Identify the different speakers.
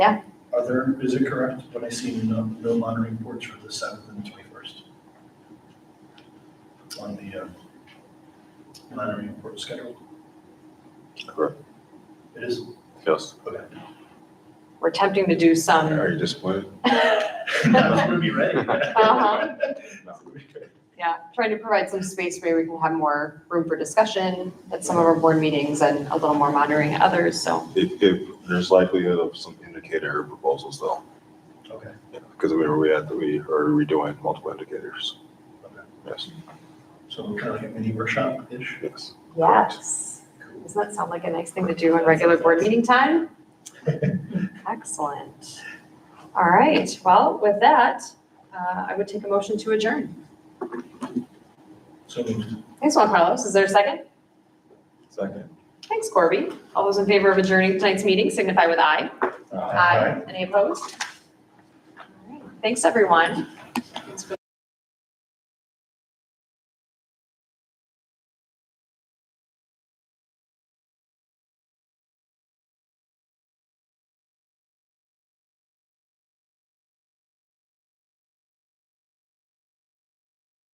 Speaker 1: Yeah.
Speaker 2: Are there, is it correct when I see no, no monitoring reports for the seventh and twenty-first? On the, uh, monitoring report schedule?
Speaker 3: Correct.
Speaker 2: It is,
Speaker 3: Yes.
Speaker 2: okay.
Speaker 1: We're attempting to do some.
Speaker 3: Are you disappointed?
Speaker 2: I was gonna be ready.
Speaker 1: Uh-huh.
Speaker 3: No.
Speaker 1: Yeah, trying to provide some space where we can have more room for discussion at some of our board meetings and a little more monitoring at others, so.
Speaker 3: If, if, there's likelihood of some indicator proposals though,
Speaker 2: Okay,
Speaker 3: because we were, we had, we are redoing multiple indicators.
Speaker 2: okay.
Speaker 3: Yes,
Speaker 2: So kind of like a mini workshop-ish?
Speaker 3: yes.
Speaker 1: Yes.
Speaker 2: Cool.
Speaker 1: Doesn't that sound like a nice thing to do in regular board meeting time? Excellent. All right, well, with that, uh, I would take a motion to adjourn.
Speaker 2: So moved.
Speaker 1: Thanks, Juan Carlos. Is there a second?
Speaker 3: Second.
Speaker 1: Thanks, Corby. All those in favor of adjourning tonight's meeting signify with aye.
Speaker 3: Uh,
Speaker 1: Any opposed? All right. Thanks, everyone. Thanks for-